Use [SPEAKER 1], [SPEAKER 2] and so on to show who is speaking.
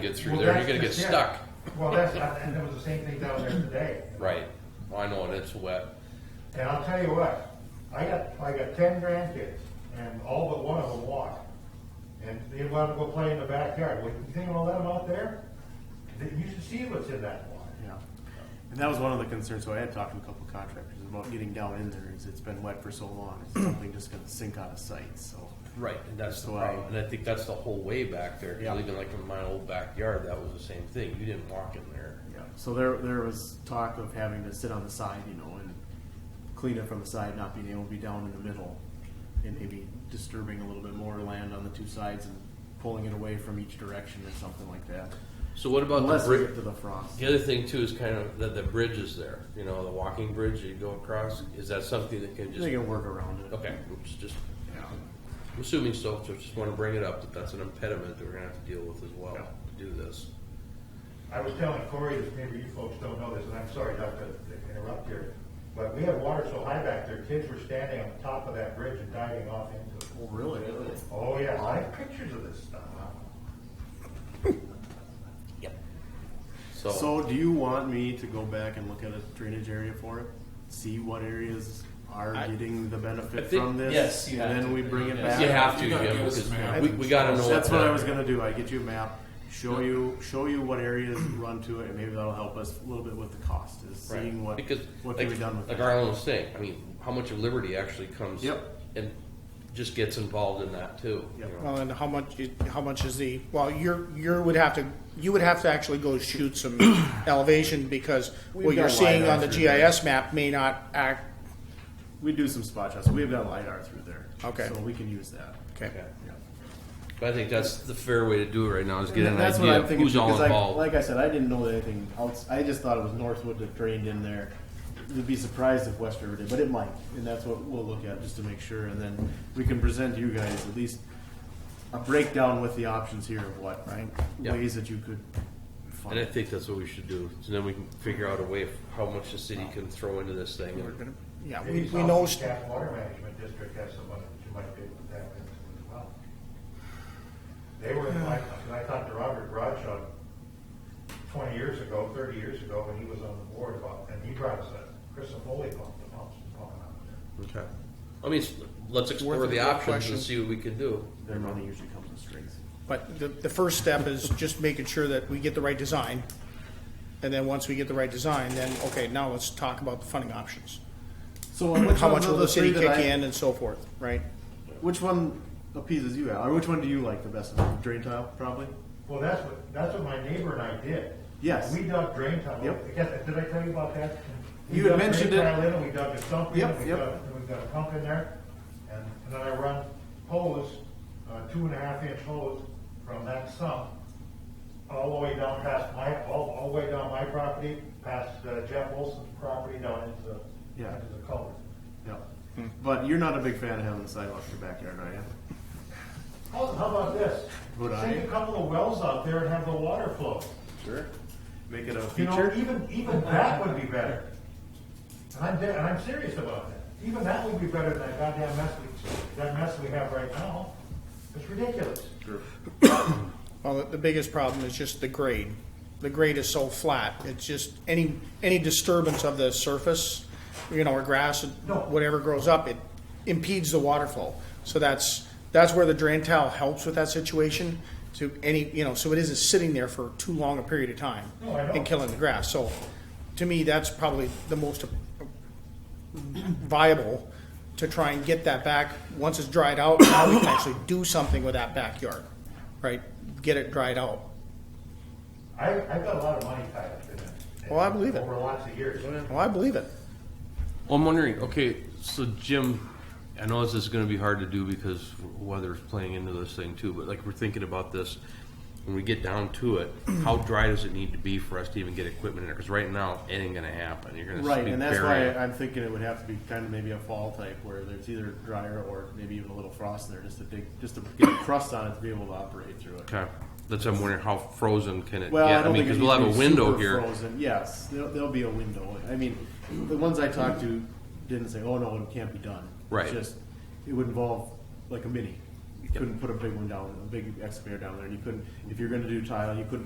[SPEAKER 1] get through
[SPEAKER 2] Well,
[SPEAKER 1] there, you're
[SPEAKER 2] that's
[SPEAKER 1] gonna get
[SPEAKER 2] just it.
[SPEAKER 1] stuck.
[SPEAKER 2] Well, that's, I- and it was the same thing down there today.
[SPEAKER 1] Right. Well, I know, and it's wet.
[SPEAKER 2] And I'll tell you what, I got, I got ten grandkids, and all but one of them walk. And they want to go play in the backyard. Well, you think I'll let them out there? They- You should see what's in that water.
[SPEAKER 3] Yeah, and that was one of the concerns, so I had talked to a couple contractors about getting down in there, is it's been wet for so long, it's something just gonna sink out of sight, so.
[SPEAKER 1] Right, and that's the
[SPEAKER 3] So I-
[SPEAKER 1] problem. And I think that's the whole way back there. 'cause
[SPEAKER 3] Yeah.
[SPEAKER 1] Even like in my old backyard, that was the same thing. You didn't walk in there.
[SPEAKER 3] Yeah, so there, there was talk of having to sit on the side, you know, and clean it from the side, not being able to be down in the middle, and maybe disturbing a little bit more land on the two sides and pulling it away from each direction or something like that.
[SPEAKER 1] So what about the
[SPEAKER 3] Unless you
[SPEAKER 1] bridge?
[SPEAKER 3] get to the frost.
[SPEAKER 1] The other thing too is kind of that the bridge is there, you know, the walking bridge you go across. Is that something that can just,
[SPEAKER 3] They can work around it.
[SPEAKER 1] okay, oops, just,
[SPEAKER 3] Yeah.
[SPEAKER 1] I'm assuming so, so just wanna bring it up, that that's an impediment that we're gonna have to deal with as well
[SPEAKER 3] Yeah.
[SPEAKER 1] to do this.
[SPEAKER 2] I was telling Corey, this, maybe you folks don't know this, and I'm sorry not to to interrupt here, but we had water so high back there, kids were standing on the top of that bridge and diving off into it.
[SPEAKER 3] Well, really?
[SPEAKER 2] Oh, yeah, I have pictures of this stuff.
[SPEAKER 1] So,
[SPEAKER 3] So do you want me to go back and look at a drainage area for it? See what areas are
[SPEAKER 4] I-
[SPEAKER 3] getting the benefit
[SPEAKER 1] I think-
[SPEAKER 3] from this?
[SPEAKER 4] yes, you have
[SPEAKER 3] And then
[SPEAKER 4] to.
[SPEAKER 3] we bring it
[SPEAKER 4] You
[SPEAKER 3] back?
[SPEAKER 1] you have to,
[SPEAKER 4] You gotta
[SPEAKER 1] Jim,
[SPEAKER 4] give us
[SPEAKER 1] because
[SPEAKER 4] a map.
[SPEAKER 1] we, we gotta know.
[SPEAKER 3] So That's
[SPEAKER 1] what
[SPEAKER 3] what
[SPEAKER 1] that-
[SPEAKER 3] I was gonna do. I get you a map, show you, show you what areas run to it, and maybe that'll help us a little bit with the cost, is
[SPEAKER 1] Right.
[SPEAKER 3] seeing what,
[SPEAKER 1] because
[SPEAKER 3] what
[SPEAKER 1] like,
[SPEAKER 3] can be done with
[SPEAKER 1] like
[SPEAKER 3] it.
[SPEAKER 1] Arlen was saying, I mean, how much of Liberty actually comes
[SPEAKER 3] Yep.
[SPEAKER 1] and just gets involved in that too.
[SPEAKER 3] Yep.
[SPEAKER 1] you know?
[SPEAKER 5] Well, and how much, is- how much is the, well, you're, you would have to, you would have to actually go shoot some elevation because
[SPEAKER 3] We've
[SPEAKER 5] what you're
[SPEAKER 3] got
[SPEAKER 5] seeing
[SPEAKER 3] LiDAR
[SPEAKER 5] on the
[SPEAKER 3] through there.
[SPEAKER 5] GIS map may not act,
[SPEAKER 3] We do some spot shots. We've got LiDAR through there.
[SPEAKER 5] Okay.
[SPEAKER 3] So we can use that.
[SPEAKER 5] okay.
[SPEAKER 1] Yeah.
[SPEAKER 3] Yeah.
[SPEAKER 1] But I think that's the fair way to do it right now is get an
[SPEAKER 3] That's what
[SPEAKER 1] idea
[SPEAKER 3] I'm
[SPEAKER 1] of
[SPEAKER 3] thinking,
[SPEAKER 1] who's all
[SPEAKER 3] because I-
[SPEAKER 1] involved.
[SPEAKER 3] Like I said, I didn't know that anything else, I just thought it was Northwood that drained in there. Would be surprised if West River did, but it might, and that's what we'll look at just to make sure, and then we can present you guys at least a breakdown with the options here of what, right?
[SPEAKER 1] Yeah.
[SPEAKER 3] Ways that you could
[SPEAKER 1] and I
[SPEAKER 3] fund.
[SPEAKER 1] think that's what we should do. So then we can figure out a way of how much the city can throw into this thing.
[SPEAKER 5] We're gonna- Yeah, we,
[SPEAKER 2] Maybe
[SPEAKER 5] we know,
[SPEAKER 2] South Cap Water Management District has some money that you might be able to tap into as well. They were, I, I talked to Robert Bradshaw twenty years ago, thirty years ago, when he was on the board about, and he brought us a crystal Foley pump, the pumps and pumping out of there.
[SPEAKER 1] Okay. I mean, s- let's explore
[SPEAKER 5] Worth a
[SPEAKER 1] the
[SPEAKER 5] good
[SPEAKER 1] options
[SPEAKER 5] question.
[SPEAKER 1] and see what we can do.
[SPEAKER 3] Their money usually comes in strings.
[SPEAKER 5] but the, the first step is just making sure that we get the right design. And then once we get the right design, then, okay, now let's talk about the funding options.
[SPEAKER 3] So uh,
[SPEAKER 5] How much will the city kick in and so forth, right?
[SPEAKER 3] Which one appeases you, Al, or which one do you like the best? Drain tile, probably?
[SPEAKER 2] Well, that's what, that's what my neighbor and I did.
[SPEAKER 3] Yes.
[SPEAKER 2] We dug drain tile,
[SPEAKER 3] Yep.
[SPEAKER 2] Again, did I tell you about that? We
[SPEAKER 3] You had
[SPEAKER 2] dug drain
[SPEAKER 3] mentioned it.
[SPEAKER 2] tile in, and we dug a sump in,
[SPEAKER 3] Yep,
[SPEAKER 2] and we
[SPEAKER 3] yep.
[SPEAKER 2] dug, and we got a pump in there, and and then I run hose, uh, two and a half inch hose from that sump all the way down past my, all, all the way down my property, past uh, Jeff Wilson's property down into the,
[SPEAKER 3] Yeah.
[SPEAKER 2] into the culvert.
[SPEAKER 3] Yeah.
[SPEAKER 5] Hmm.
[SPEAKER 3] But you're not a big fan of having the sidewalk in your backyard, are you?
[SPEAKER 2] Oh, how about this?
[SPEAKER 3] Would I?
[SPEAKER 2] Sink a couple of wells out there and have the water flow.
[SPEAKER 3] Sure. Make it a
[SPEAKER 2] You know,
[SPEAKER 3] feature.
[SPEAKER 2] even, even that would be better. And I'm, de- and I'm serious about that. Even that would be better than that goddamn mess we, that mess we have right now. It's ridiculous.
[SPEAKER 5] Well, the biggest problem is just the grade. The grade is so flat, it's just any, any disturbance of the surface, you know, or grass,
[SPEAKER 2] No.
[SPEAKER 5] whatever grows up, it impedes the water flow. So that's, that's where the drain tile helps with that situation to any, you know, so it isn't sitting there for too long a period of time.
[SPEAKER 2] No, I know.
[SPEAKER 5] And killing the grass. So to me, that's probably the most viable to try and get that back. Once it's dried out, now we can actually do something with that backyard, right? Get it dried out.
[SPEAKER 2] I, I've got a lot of money tied up in it.
[SPEAKER 5] Well, I believe it.
[SPEAKER 2] Over lots of years.
[SPEAKER 5] Well, I believe it.
[SPEAKER 1] Well, I'm wondering, okay, so Jim, I know this is gonna be hard to do because weather's playing into this thing too, but like, we're thinking about this, when we get down to it, how dry does it need to be for us to even get equipment in there? Cause right now, it ain't gonna happen, you're gonna be
[SPEAKER 3] Right, and that's why
[SPEAKER 1] buried.
[SPEAKER 3] I'm thinking it would have to be kind of maybe a fall type where there's either drier or maybe even a little frost in there, just to dig, just to get a crust on it to be able to operate through it.
[SPEAKER 1] Okay, that's, I'm wondering, how frozen can it get?
[SPEAKER 3] Well, I don't
[SPEAKER 1] mean,
[SPEAKER 3] think
[SPEAKER 1] Cause
[SPEAKER 3] it
[SPEAKER 1] we'll have
[SPEAKER 3] needs
[SPEAKER 1] a
[SPEAKER 3] to be
[SPEAKER 1] window
[SPEAKER 3] super
[SPEAKER 1] here,
[SPEAKER 3] Frozen, yes, there'll, there'll be a window. I mean, the ones I talked to didn't say, "Oh no, it can't be done." It's
[SPEAKER 1] Right.
[SPEAKER 3] just it would involve like a mini. You couldn't put a big one down, a big excavator down there, and you couldn't. If you're going to do tile, you couldn't